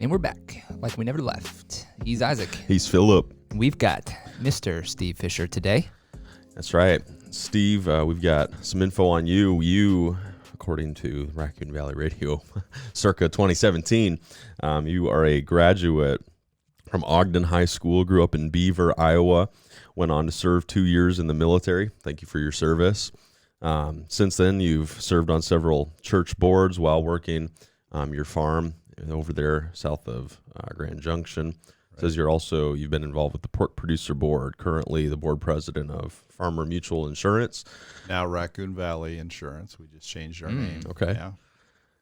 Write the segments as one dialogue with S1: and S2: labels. S1: And we're back, like we never left. He's Isaac.
S2: He's Philip.
S1: We've got Mr. Steve Fisher today.
S2: That's right. Steve, uh, we've got some info on you. You, according to Raccoon Valley Radio, circa 2017, um, you are a graduate from Ogden High School, grew up in Beaver, Iowa, went on to serve two years in the military. Thank you for your service. Um, since then, you've served on several church boards while working um, your farm over there south of uh, Grand Junction. Says you're also you've been involved with the Pork Producer Board. Currently, the board president of Farmer Mutual Insurance.
S3: Now Raccoon Valley Insurance. We just changed our name.
S2: Hmm, okay.
S3: Yeah.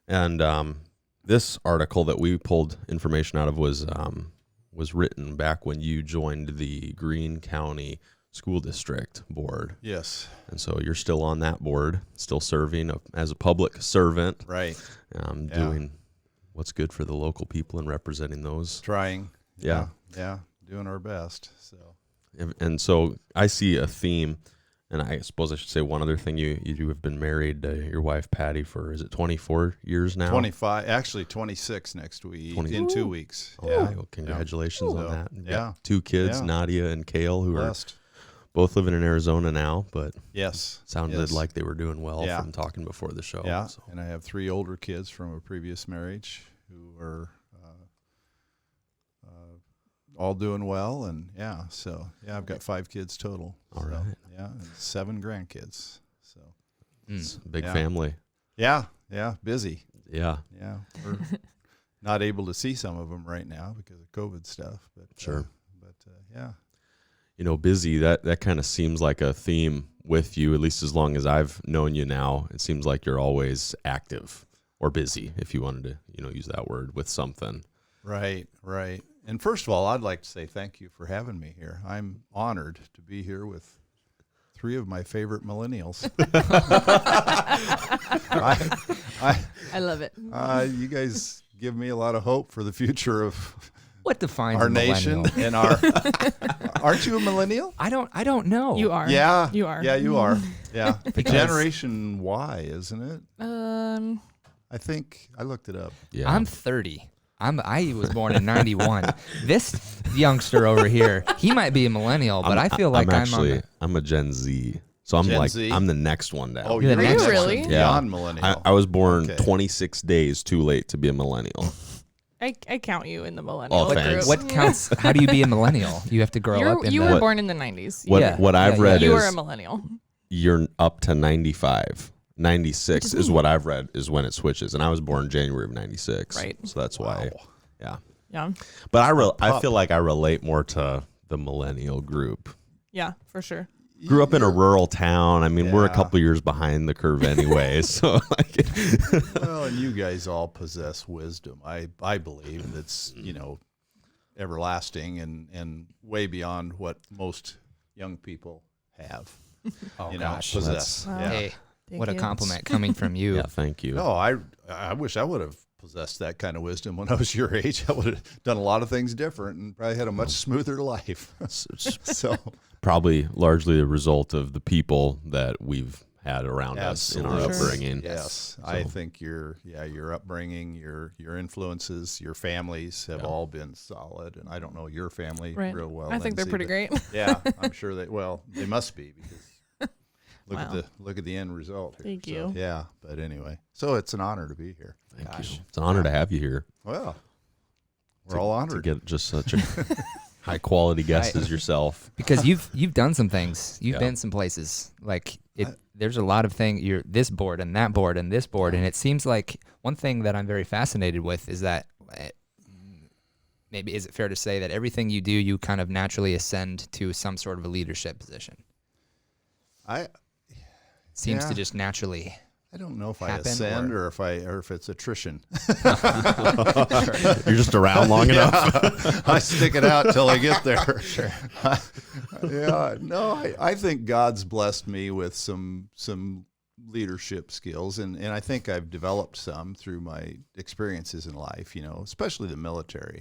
S2: And um, this article that we pulled information out of was um, was written back when you joined the Greene County School District Board,
S3: Yes.
S2: and so you're still on that board, still serving a, as a public servant,
S3: Right.
S2: um,
S3: Yeah.
S2: doing what's good for the local people and representing those.
S3: Trying.
S2: Yeah.
S3: Yeah. Doing our best. So
S2: And, and so I see a theme, and I suppose I should say one other thing. You you have been married to your wife Patty for is it 24 years now?
S3: 25, actually 26 next week
S2: 20.
S3: in two weeks.
S2: Oh,
S3: yeah.
S2: well, congratulations on
S3: So,
S2: that. You've got
S3: yeah.
S2: Two kids,
S3: Yeah.
S2: Nadia and Kale, who are
S3: Blessed.
S2: both living in Arizona now, but
S3: Yes.
S2: sounded
S3: Yes.
S2: like they were doing well
S3: Yeah.
S2: from talking before the show.
S3: yeah.
S2: So,
S3: And I have three older kids from a previous marriage who are uh, uh, all doing well. And yeah. So yeah, I've got five kids total.
S2: All
S3: so,
S2: right.
S3: Yeah. And seven grandkids. So
S2: it's a big
S3: Mm. Yeah.
S2: family.
S3: yeah. Yeah. Busy.
S2: Yeah.
S3: Yeah, we're not able to see some of them right now because of COVID stuff. But uh,
S2: Sure.
S3: but uh, yeah,
S2: You know, busy, that, that kind of seems like a theme with you, at least as long as I've known you now. It seems like you're always active or busy, if you wanted to, you know, use that word with something.
S3: right, right. And first of all, I'd like to say thank you for having me here. I'm honored to be here with three of my favorite millennials. I, I,
S4: I love it.
S3: uh, you guys give me a lot of hope for the future of
S1: What defines
S3: our
S1: a
S3: nation
S1: millennial?
S3: and our. Aren't you a millennial?
S1: I don't. I don't know.
S4: You are.
S3: Yeah,
S4: You are.
S3: Yeah, you are. Yeah,
S1: Because-
S3: Generation Y, isn't it?
S4: Um,
S3: I think I looked it up.
S2: Yeah.
S1: I'm 30. I'm. I was born in '91. this youngster over here, he might be a millennial, but I feel like I'm,
S2: actually,
S1: on.
S2: I'm a Gen Z. So I'm
S3: Gen
S2: like,
S3: Z?
S2: i I'm the next one down.
S3: Oh,
S1: You're
S3: you're
S1: the next
S4: Really?
S3: one.
S4: one.
S3: Beyond
S2: Yeah.
S3: millennial.
S2: I, I was born
S3: Okay.
S2: 26 days too late to be a millennial.
S4: I, I count you in the millennial
S2: Oh,
S4: group. Mm.
S1: The,
S2: thanks.
S1: what counts? How do you be a millennial? You have to grow
S4: You're-
S1: up in
S4: you
S1: the.
S4: were born in the 90s.
S2: What
S1: Yeah.
S2: what
S1: Yeah,
S2: I've
S1: yeah.
S2: read
S4: you were a
S2: is
S4: millennial.
S2: you're up to 95. 96 is what I've read is when it switches, and I was born January of 96.
S4: Right.
S2: So that's why. Yeah.
S4: Yeah.
S2: But I re- I feel like I relate more to the millennial group.
S4: Yeah, for sure.
S2: Grew up in a rural town. I mean, we're a
S3: Yeah.
S2: couple years behind the curve anyway. so like,
S3: well, and you guys all possess wisdom. I I believe that's you know everlasting and and way beyond what most young people have.
S1: Oh
S3: you know,
S1: gosh.
S3: possess.
S4: Wow.
S3: Yeah.
S1: Hey, what a
S4: you.
S1: compliment coming from you.
S2: yeah, thank you.
S3: No, I I wish I would have possessed that kind of wisdom when I was your age. I would have done a lot of things different and probably had a much smoother life.
S2: It's- it's
S3: so
S2: probably largely the result of the people that we've had around us in our
S3: Absolutely.
S4: Sure.
S2: upbringing.
S3: Yes, I think your yeah your upbringing, your your influences, your families have all been solid, and I don't know your family
S4: Right.
S3: real well.
S4: I think they're
S3: Lindsay,
S4: pretty
S3: but
S4: great.
S3: Yeah, I'm sure they. Well, they must be because look at
S4: Wow.
S3: the look at the end result. here.
S4: Thank
S3: So,
S4: you.
S3: yeah, but anyway, so it's an honor to be here.
S2: Thank you. It's an honor to have you here.
S3: Well, we're all
S2: to
S3: honored.
S2: get just such a high quality guest
S1: Right.
S2: as yourself.
S1: because you've you've done some things. You've
S2: Yeah.
S1: been some places. Like it,
S3: I-
S1: there's a lot of things. You're this board and that board and this board, and it seems like one thing that I'm very fascinated with is that eh, maybe is it fair to say that everything you do, you kind of naturally ascend to some sort of a leadership position.
S3: I
S1: Seems to
S3: Yeah.
S1: just naturally.
S3: I don't know if I
S1: Happen
S3: ascend
S1: or-
S3: or if I or if it's attrition.
S2: You're just around long enough.
S3: I stick it out till I get there. sure. yeah. No, I, I think God's blessed me with some some leadership skills and, and I think I've developed some through my experiences in life, you know, especially the military.